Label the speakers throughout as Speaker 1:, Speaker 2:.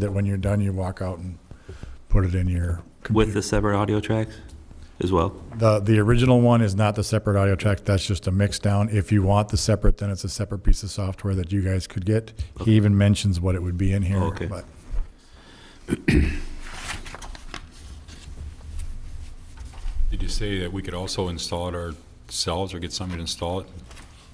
Speaker 1: that when you're done, you walk out and put it in your
Speaker 2: with
Speaker 1: computer.
Speaker 2: the separate audio tracks as well?
Speaker 1: The, the original one is not the separate audio track, that's just a mix down. If you want the separate, then it's a separate piece of software that you guys could get. He even mentions what it would be in here.
Speaker 2: Okay.
Speaker 1: but-
Speaker 3: Did you say that we could also install it ourselves or get somebody to install it?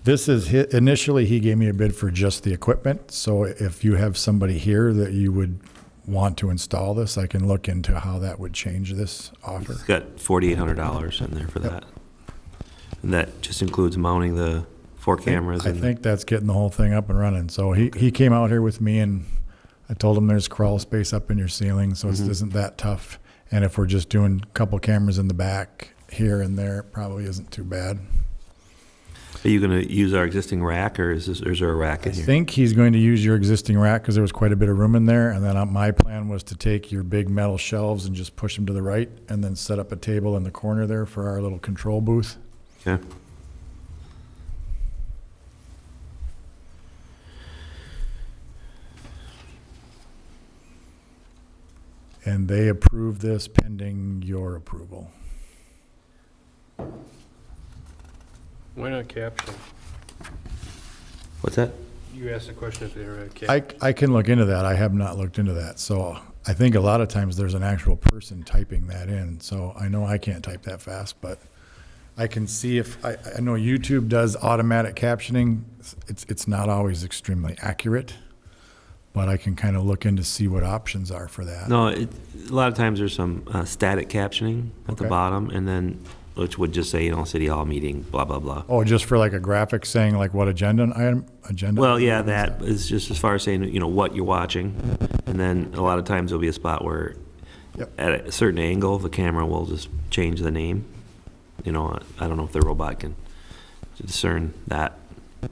Speaker 1: This is, hi- initially, he gave me a bid for just the equipment, so if you have somebody here that you would want to install this, I can look into how that would change this offer.
Speaker 2: It's got forty-eight hundred dollars in there for that. And that just includes mounting the four cameras
Speaker 1: I
Speaker 2: and,
Speaker 1: think that's getting the whole thing up and running, so he, he came out here with me and I told him there's crawl space up in your ceiling, so
Speaker 2: Mm-hmm.
Speaker 1: it isn't that tough. And if we're just doing a couple cameras in the back here and there, it probably isn't too bad.
Speaker 2: are you gonna use our existing rack or is this, or is there a rack
Speaker 1: I
Speaker 2: in here?
Speaker 1: think he's going to use your existing rack because there was quite a bit of room in there. And then uh, my plan was to take your big metal shelves and just push them to the right and then set up a table in the corner there for our little control booth.
Speaker 2: Okay.
Speaker 1: And they approved this pending your approval.
Speaker 4: Why not caption?
Speaker 2: What's that?
Speaker 4: You asked the question if they were a cap.
Speaker 1: I, I can look into that. I have not looked into that. So I think a lot of times there's an actual person typing that in. So I know I can't type that fast, but I can see if, I, I know YouTube does automatic captioning. It's, it's not always extremely accurate, but I can kind of look in to see what options are for that.
Speaker 2: No, it, a lot of times there's some uh, static captioning at the
Speaker 1: Okay.
Speaker 2: bottom and then, which would just say, you know, city hall meeting, blah, blah, blah.
Speaker 1: Oh, just for like a graphic saying like what agenda item, agenda?
Speaker 2: Well, yeah,
Speaker 1: item is
Speaker 2: that is just as far as saying, you know, what you're watching. And then a lot of times there'll be a spot where
Speaker 1: Yep.
Speaker 2: at a certain angle, the camera will just change the name. You know, I don't know if the robot can discern that.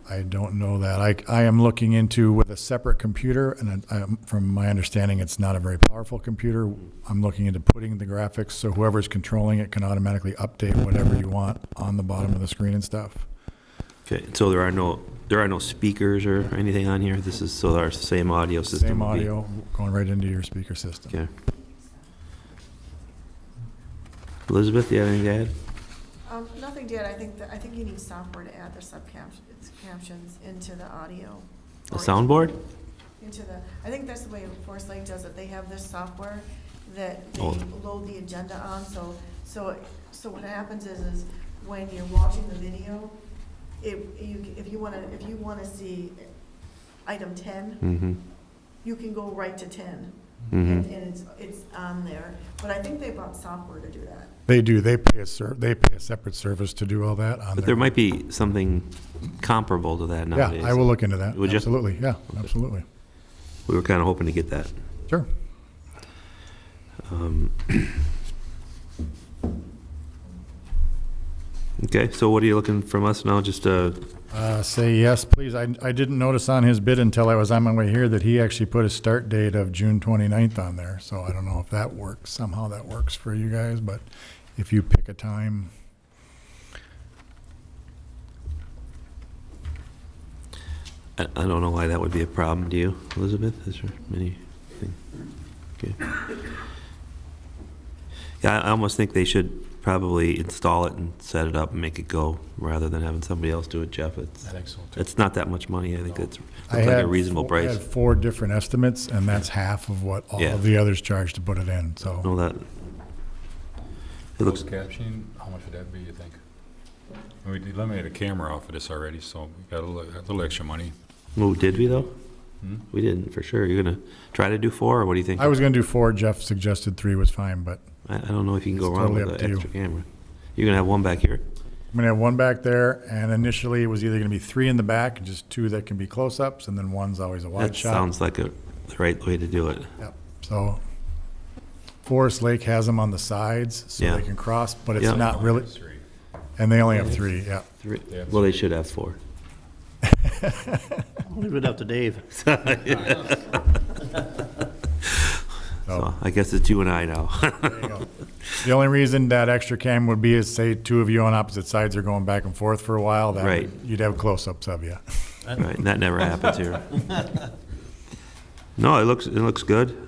Speaker 1: I don't know that. I, I am looking into with a separate computer, and I, I'm- from my understanding, it's not a very powerful computer. I'm looking into putting the graphics, so whoever's controlling it can automatically update whatever you want on the bottom of the screen and stuff.
Speaker 2: Okay, so there are no, there are no speakers or anything on here. This is, so our same audio system.
Speaker 1: Same
Speaker 2: will be-
Speaker 1: audio going right into your speaker system.
Speaker 2: Okay. Elizabeth, you have anything to add?
Speaker 5: Um, nothing did, I think, that I think you need software to add the subcaptions, captions into the audio.
Speaker 2: A
Speaker 5: or
Speaker 2: soundboard?
Speaker 5: Into the, I think that's the way Forest Lake does it, they have this software that they
Speaker 2: Oh.
Speaker 5: load the agenda on, so, so, so what happens is, is when you're watching the video, if you, if you wanna, if you wanna see item ten,
Speaker 2: Mm-hmm,
Speaker 5: you can go right to ten, and,
Speaker 2: mm-hmm.
Speaker 5: and it's, it's on there, but I think they bought software to do that.
Speaker 1: They do, they pay a ser, they pay a separate service to do all that on
Speaker 2: But there
Speaker 1: their.
Speaker 2: might be something comparable to that
Speaker 1: Yeah,
Speaker 2: nowadays.
Speaker 1: I will look into that.
Speaker 2: Would you?
Speaker 1: Absolutely, yeah, absolutely.
Speaker 2: We were kind of hoping to get that.
Speaker 1: Sure.
Speaker 2: Um, Okay, so what are you looking from us now? Just, uh,
Speaker 1: Uh, Say yes, please. I, I didn't notice on his bid until I was on my way here that he actually put a start date of June 29th on there. So I don't know if that works, somehow that works for you guys, but if you pick a time,
Speaker 2: I I don't know why that would be a problem to you, Elizabeth, is there any thing? Okay. Yeah, I I almost think they should probably install it and set it up and make it go, rather than having somebody else do it, Jeff. It's,
Speaker 3: think so,
Speaker 2: it's not that much money, I think it's,
Speaker 1: I
Speaker 2: looks like
Speaker 1: had
Speaker 2: a reasonable
Speaker 1: four- I
Speaker 2: price.
Speaker 1: had four different estimates and that's half of what all
Speaker 2: Yeah.
Speaker 1: of the others charged to put it in, so.
Speaker 2: No, that, it looks,
Speaker 3: Closed captioning, how much would that be, you think? We eliminated a camera off of this already, so we got a little, a little extra money.
Speaker 2: oh, did we though?
Speaker 3: Hmm?
Speaker 2: We didn't, for sure. You're gonna try to do four, or what do you think?
Speaker 1: I was gonna do four, Jeff suggested three was fine, but
Speaker 2: I, I don't know if you can go
Speaker 1: It's
Speaker 2: wrong
Speaker 1: totally
Speaker 2: with
Speaker 1: up
Speaker 2: an
Speaker 1: to you.
Speaker 2: extra camera. You're gonna have one back here.
Speaker 1: I'm gonna have one back there and initially it was either gonna be three in the back, just two that can be close-ups and then one's always a
Speaker 2: That
Speaker 1: wide shot.
Speaker 2: sounds like a, the right way to do it.
Speaker 1: Yep, so Forest Lake has them on the sides so
Speaker 2: Yeah.
Speaker 1: they can cross, but
Speaker 2: Yeah.
Speaker 1: it's not really,
Speaker 3: Three.
Speaker 1: and they only have three, yeah.
Speaker 2: Three,
Speaker 3: Yeah.
Speaker 2: well, they should have four.
Speaker 6: Leave it up to Dave.
Speaker 2: So I guess it's you and I now.
Speaker 1: Oh. There you go. The only reason that extra cam would be is say two of you on opposite sides are going back and forth for a while, that,
Speaker 2: Right.
Speaker 1: would- you'd have close-ups of you.
Speaker 2: Right, and that never happens here. No, it looks, it looks good.